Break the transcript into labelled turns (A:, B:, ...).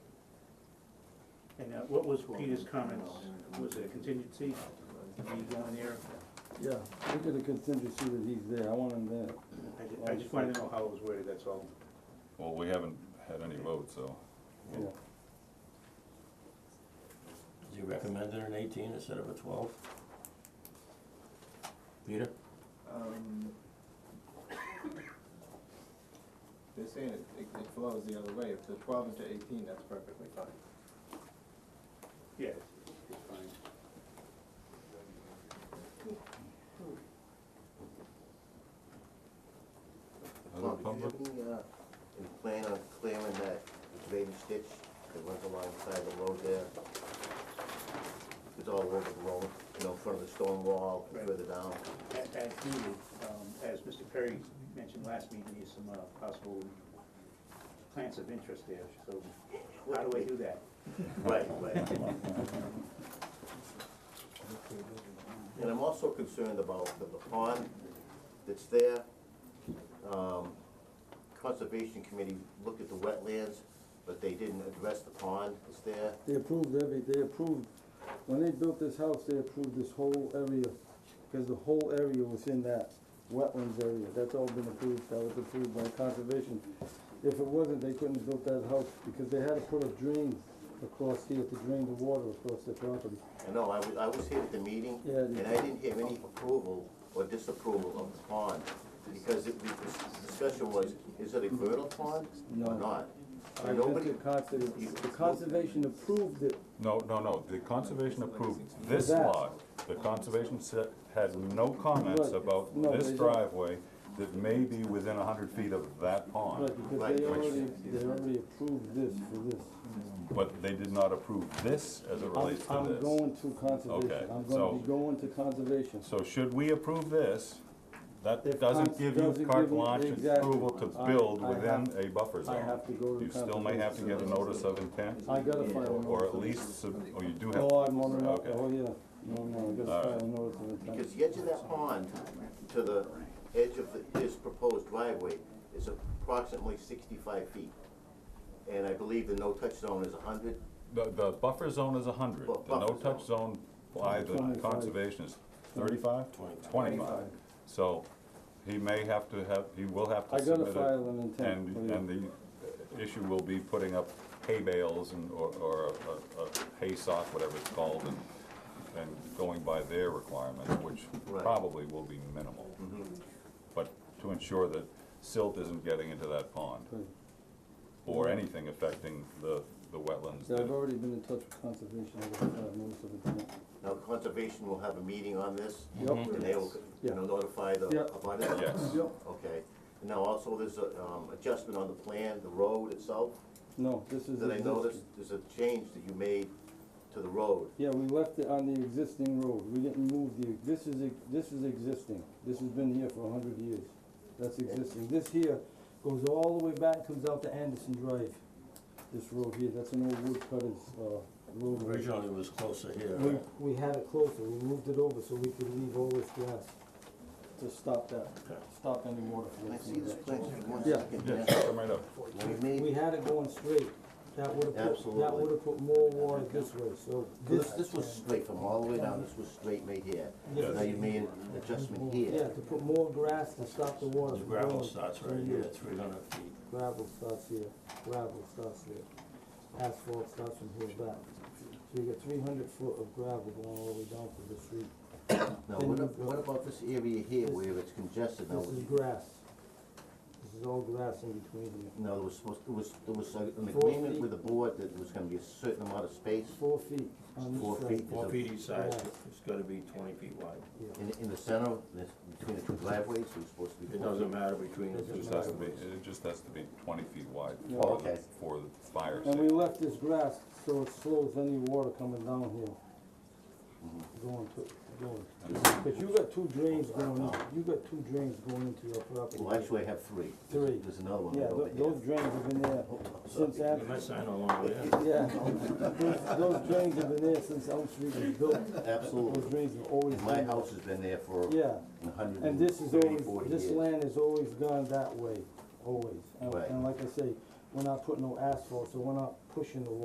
A: now, uh, what was Peter's comments? Was there contingency? Are you going there?
B: Yeah, look at the contingency that he's there, I want him there.
A: I ju- I just wanted to know how it was worded, that's all.
C: Well, we haven't had any votes, so.
B: Yeah,
D: Is he recommending an eighteen instead of a twelve? Peter?
E: Um, They're saying it, it it flows the other way, if the twelve is to eighteen, that's perfectly fine.
A: Yeah, it's fine.
C: Other
F: Tom,
C: public?
F: did you have any, uh, any plan on clearing that drainage ditch that runs alongside the road there? It's all over the road, you know, in front of the stone wall,
A: Right.
F: further down.
A: As as needed, um, as Mr. Perry mentioned last meeting, there's some uh, possible plants of interest there, so how do I do that?
F: Right, right. And I'm also concerned about the the pond that's there. Um, Conservation Committee looked at the wetlands, but they didn't address the pond that's there.
B: they approved every, they approved, when they built this house, they approved this whole area, cause the whole area was in that wetlands area, that's all been approved, that was approved by conservation. If it wasn't, they couldn't have built that house, because they had to put a drain across here to drain the water across the property.
F: I know, I was, I was here at the meeting,
B: Yeah,
F: and
B: you-
F: I didn't hear any approval or disapproval of the pond, because it, the discussion was, is it a fertile pond
B: No.
F: or not?
B: I
F: And
B: went
F: nobody,
B: to conservation, the conservation approved it,
C: No, no, no, the conservation approved this
B: That.
C: lot. The conservation said, had no comments
B: Right.
C: about
B: No,
C: this
B: they don't.
C: driveway that may be within a hundred feet of that pond.
B: but because
F: Right,
B: they
F: which-
B: already, they already approved this for this.
C: But they did not approve this as it
B: I'm,
C: relates to
B: I'm
C: this.
B: going to conservation, I'm
C: so-
B: gonna be going to conservation.
C: So should we approve this, that
B: If cons-
C: doesn't give you
B: doesn't
C: carte
B: give me-
C: blanche and
B: exactly.
C: approval to
B: I-
C: build
B: I
C: within
B: have-
C: a buffer zone.
B: I have to go to
C: You still may have to get a notice of intent,
B: I gotta file a
C: or at
B: notice.
C: least, sub- or you do have.
B: Oh, I'm on,
C: Okay.
B: oh, yeah, no, no, I gotta
C: All right.
B: file a notice of intent.
F: because the edge of that pond to the edge of the- this proposed driveway is approximately sixty-five feet. And I believe the no-touch zone is hundred,
C: The, the buffer zone is hundred,
F: Bu-
C: the
F: buffer
C: no-touch zone by the
B: 25.
C: conservation is thirty-five?
D: Twenty-five.
C: Twenty-five. So, he may have to have, he will have
B: I gotta
C: to submit it.
B: file an intent,
C: And,
B: yeah.
C: and the uh, issue will be putting up hay bales and, or, or a, a- a hay sock, whatever it's called, and, and going by their requirement, which
F: Right.
C: probably will be minimal.
B: Mm-hmm.
C: But to ensure that silt isn't getting into that pond,
B: Right.
C: or anything affecting the, the wetlands
B: Yeah,
C: that
B: I've already been in touch with conservation, I gotta file a notice of intent.
F: now conservation will have a meeting on this,
B: Yep.
F: and they will, you know, notify the,
B: Yeah.
F: about it.
C: Yes.
B: Yep,
F: Okay, and now also there's a, um, adjustment on the plan, the road itself,
B: no, this is.
F: that I
B: existing.
F: noticed, there's a change that you made to the road.
B: Yeah, we left it on the existing road, we didn't move the, this is, ex- this is existing, this has been here for a hundred years, that's existing. This here goes all the way back, comes out to Anderson Drive, this road here, that's an old woodcutter's, uh, road.
D: Originally it was closer here.
G: We, we had it closer, we moved it over so we could leave all this grass.
B: to stop that,
D: Okay.
B: stop any water
F: Can
B: flow.
F: I
B: from
F: see this
B: that.
F: plan, Give me one
B: Yeah.
F: second?
C: Yes, come right up.
F: We
G: We
F: made,
G: had it going straight, that would've put, that
F: Absolutely.
G: would've put more water this way, so
F: this,
G: this,
F: this was straight from all the way down, this was straight made here.
G: Yeah.
F: Now you made an adjustment
G: yeah,
F: here.
G: to put more grass to stop the water
D: The
G: from going.
D: gravel starts right
G: through
D: here, three hundred feet.
G: Gravel starts here, gravel starts here, asphalt starts from here back. So you got three hundred foot of gravel going all the way down to the street.
F: Now, what, ab- what about this area here where it's congested? Now,
G: This is grass. This is all grass in between here.
F: now there was supposed, it was, there was a- an
G: Four
F: agreement
G: feet.
F: with the board that there was gonna be a certain amount of space
G: Four feet on
F: Four
G: this side.
F: feet.
D: Four feet each side,
G: Yeah.
D: it's gotta be twenty feet wide.
G: Yeah.
F: in, in the center, this, between the two driveways, it was supposed to be.
D: It doesn't matter between the
G: It
D: two
C: Just has to be, it just has to be twenty feet wide
F: Oh,
C: for, the-
F: okay.
C: for the fire
B: And we
C: safety.
B: left this grass so it slows any water coming down here. Going to, going, cause you got two drains going, in- you got two drains going into your property.
F: Well, actually, I have three. There's-
B: Three.
F: There's another one
B: Yeah,
F: right over
B: tho-
F: here.
B: those drains have been there since
D: You
B: after,
D: might sign along with it.
B: yeah, those, those drains have been there since Elm Street was built. Those
F: Absolutely.
B: drains have always
F: And My
B: been,
F: house has been there for
B: yeah,
F: a hundred
B: and
F: and
B: this is
F: thirty,
B: always,
F: forty years.
B: this land has always gone that way, always. And-
F: Right.
B: And like I say, we're not putting no asphalt, so we're not pushing the water